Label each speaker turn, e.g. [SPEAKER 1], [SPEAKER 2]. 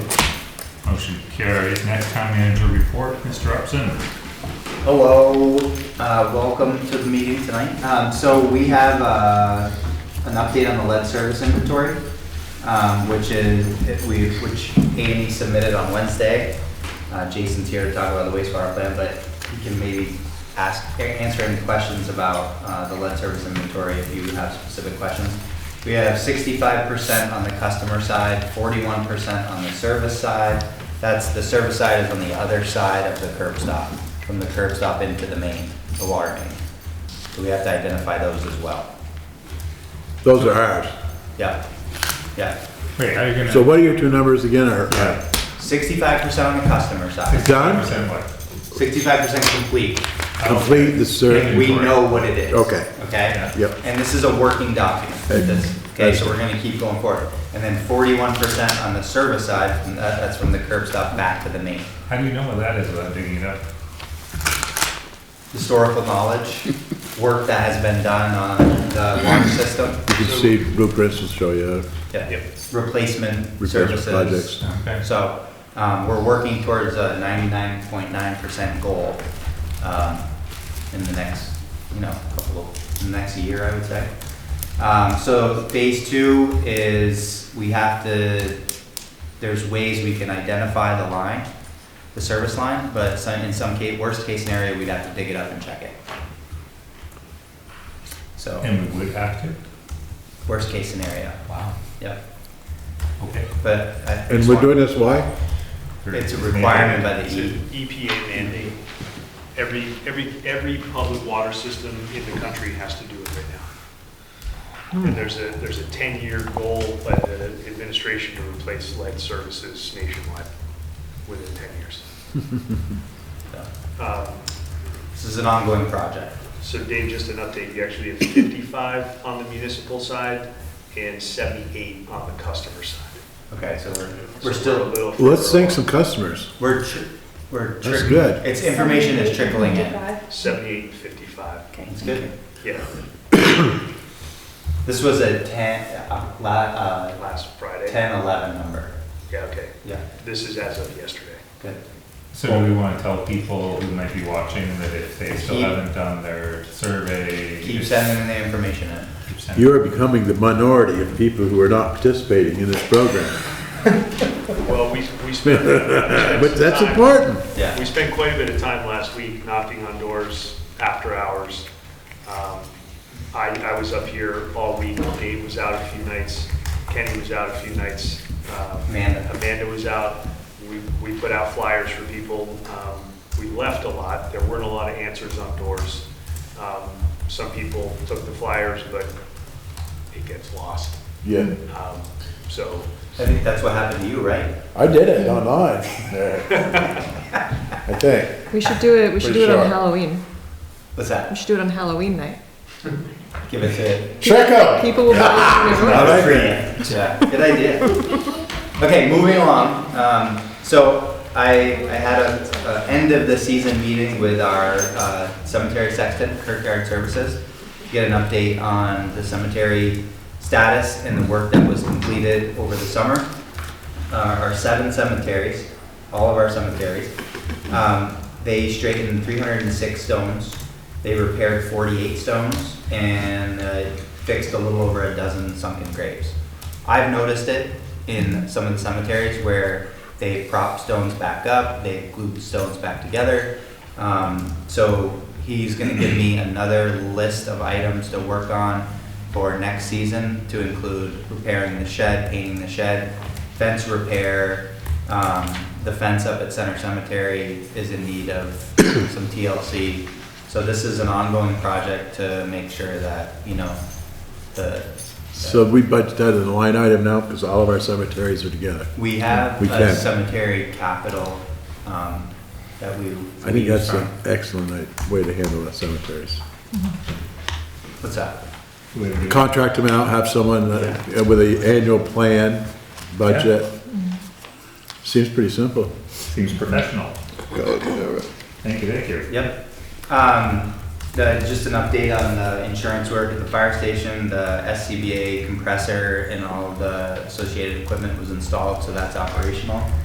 [SPEAKER 1] Motion carries. Next town manager report, Mr. Upson.
[SPEAKER 2] Hello, uh, welcome to the meeting tonight. Um, so we have, uh, an update on the lead service inventory, um, which is, if we, which Andy submitted on Wednesday. Uh, Jason's here to talk about the wastewater plan, but he can maybe ask, answer any questions about, uh, the lead service inventory if you have specific questions. We have sixty-five percent on the customer side, forty-one percent on the service side. That's, the service side is on the other side of the curb stop, from the curb stop into the main, the water main. So we have to identify those as well.
[SPEAKER 3] Those are ours.
[SPEAKER 2] Yeah, yeah.
[SPEAKER 1] Wait, how are you gonna?
[SPEAKER 3] So what are your two numbers again? Are-
[SPEAKER 1] Yeah.
[SPEAKER 2] Sixty-five percent on the customer side,
[SPEAKER 3] Done?
[SPEAKER 1] 65% what?
[SPEAKER 2] sixty-five percent complete.
[SPEAKER 3] Complete the
[SPEAKER 1] Yeah.
[SPEAKER 3] survey.
[SPEAKER 2] We know what it is.
[SPEAKER 3] Okay.
[SPEAKER 2] Okay?
[SPEAKER 1] Yeah.
[SPEAKER 3] Yep.
[SPEAKER 2] And this is a working document.
[SPEAKER 3] Okay.
[SPEAKER 2] This- Okay, so we're gonna keep going forward. And then forty-one percent on the service side, and that- that's from the curb stop back to the main.
[SPEAKER 1] How do you know what that is without digging it up?
[SPEAKER 2] Historical knowledge, work that has been done on the water system.
[SPEAKER 3] You can see blueprints to show you
[SPEAKER 2] Yeah.
[SPEAKER 1] Yep.
[SPEAKER 2] Replacement
[SPEAKER 3] repair
[SPEAKER 2] services.
[SPEAKER 3] projects.
[SPEAKER 1] Okay.
[SPEAKER 2] So, um, we're working towards a ninety-nine point nine percent goal, um, in the next, you know, couple of, in the next year, I would say. Um, so phase two is, we have to, there's ways we can identify the line, the service line, but some, in some case, worst case scenario, we'd have to dig it up and check it. So,
[SPEAKER 1] And we would have to?
[SPEAKER 2] worst case scenario,
[SPEAKER 1] Wow.
[SPEAKER 2] yep,
[SPEAKER 1] Okay.
[SPEAKER 2] but. I-
[SPEAKER 3] And we're doing this, why?
[SPEAKER 2] It's a requirement by
[SPEAKER 4] It's
[SPEAKER 2] the E.
[SPEAKER 4] an EPA mandate. Every, every, every public water system in the country has to do it right now.
[SPEAKER 3] Hmm.
[SPEAKER 4] And there's a, there's a 10-year goal by the administration to replace lead services nationwide within 10 years.
[SPEAKER 2] so.
[SPEAKER 4] Um,
[SPEAKER 2] This is an ongoing project.
[SPEAKER 4] So Dave, just an update, you actually have 55 on the municipal side and 78 on the customer side.
[SPEAKER 2] Okay, so we're,
[SPEAKER 4] So
[SPEAKER 2] we're
[SPEAKER 4] a
[SPEAKER 2] still,
[SPEAKER 4] little
[SPEAKER 3] Let's
[SPEAKER 4] further
[SPEAKER 3] thank some customers.
[SPEAKER 2] we're, tr- we're.
[SPEAKER 3] That's
[SPEAKER 2] trick-
[SPEAKER 3] good.
[SPEAKER 2] It's information is trickling in.
[SPEAKER 4] along. 78 and 55,
[SPEAKER 5] Okay.
[SPEAKER 2] It's good.
[SPEAKER 4] yeah,
[SPEAKER 2] This was a ten, uh, la, uh,
[SPEAKER 4] last Friday.
[SPEAKER 2] ten, eleven number.
[SPEAKER 4] Yeah, okay.
[SPEAKER 2] Yeah,
[SPEAKER 4] This is as of yesterday.
[SPEAKER 2] good.
[SPEAKER 1] So do we wanna tell people who might be watching that if they still
[SPEAKER 2] Keep-
[SPEAKER 1] haven't done their survey?
[SPEAKER 2] Keep
[SPEAKER 1] just
[SPEAKER 2] sending the information in.
[SPEAKER 1] keep sending-
[SPEAKER 3] You are becoming the minority of people who are not participating in this program.
[SPEAKER 4] Well, we, we spent. uh, we spent
[SPEAKER 3] But
[SPEAKER 4] some
[SPEAKER 3] that's
[SPEAKER 4] time-
[SPEAKER 3] important.
[SPEAKER 2] Yeah,
[SPEAKER 4] We spent quite a bit of time last week knocking on doors after hours. Um, I, I was up here all week, Dave was out a few nights, Kenny was out a few nights. um,
[SPEAKER 2] Amanda.
[SPEAKER 4] Amanda was out, we, we put out flyers for people. Um, We left a lot, there weren't a lot of answers on doors. Um, Some people took the flyers, but it gets lost.
[SPEAKER 3] Yeah,
[SPEAKER 4] Um, So,
[SPEAKER 2] I think that's what happened to you, right?
[SPEAKER 3] I did it online. I think.
[SPEAKER 5] We should do it. We should
[SPEAKER 3] Pretty
[SPEAKER 5] do it on
[SPEAKER 3] sure.
[SPEAKER 5] Halloween.
[SPEAKER 2] What's
[SPEAKER 5] We
[SPEAKER 2] that?
[SPEAKER 5] should do it on Halloween night.
[SPEAKER 2] Give it to.
[SPEAKER 3] Check out.
[SPEAKER 5] People will buy it.
[SPEAKER 3] Not a free.
[SPEAKER 2] Yeah, good idea. Okay, moving along. Um, so I, I had a, a end of the season meeting with our uh, cemetery sexton, Kirkyard Services. to Get an update on the cemetery status and the work that was completed over the summer. Uh, our seven cemeteries, all of our cemeteries. Um, they straightened three hundred and six stones. They repaired forty-eight stones and uh, fixed a little over a dozen sunken graves. I've noticed it in some of the cemeteries where they prop stones back up, they glue stones back together. Um, so he's gonna give me another list of items to work on for next season to include repairing the shed, painting the shed, fence repair. Um, the fence up at Center Cemetery is in need of some TLC. So this is an ongoing project to make sure that, you know, the.
[SPEAKER 3] So we budgeted that in a line item now because all of our cemeteries are together.
[SPEAKER 2] We have
[SPEAKER 3] We
[SPEAKER 2] a
[SPEAKER 3] can.
[SPEAKER 2] cemetery capital um, that we.
[SPEAKER 3] I think that's an excellent uh, way to handle our cemeteries.
[SPEAKER 2] What's that?
[SPEAKER 1] Would we-
[SPEAKER 3] contract them out, have someone uh, with an annual plan, budget. Seems pretty simple.
[SPEAKER 1] Seems professional. Thank you, thank you.
[SPEAKER 2] Yep. Um, the, just an update on the insurance work at the fire station, the SCBA compressor and all of the associated equipment was installed, so that's operational.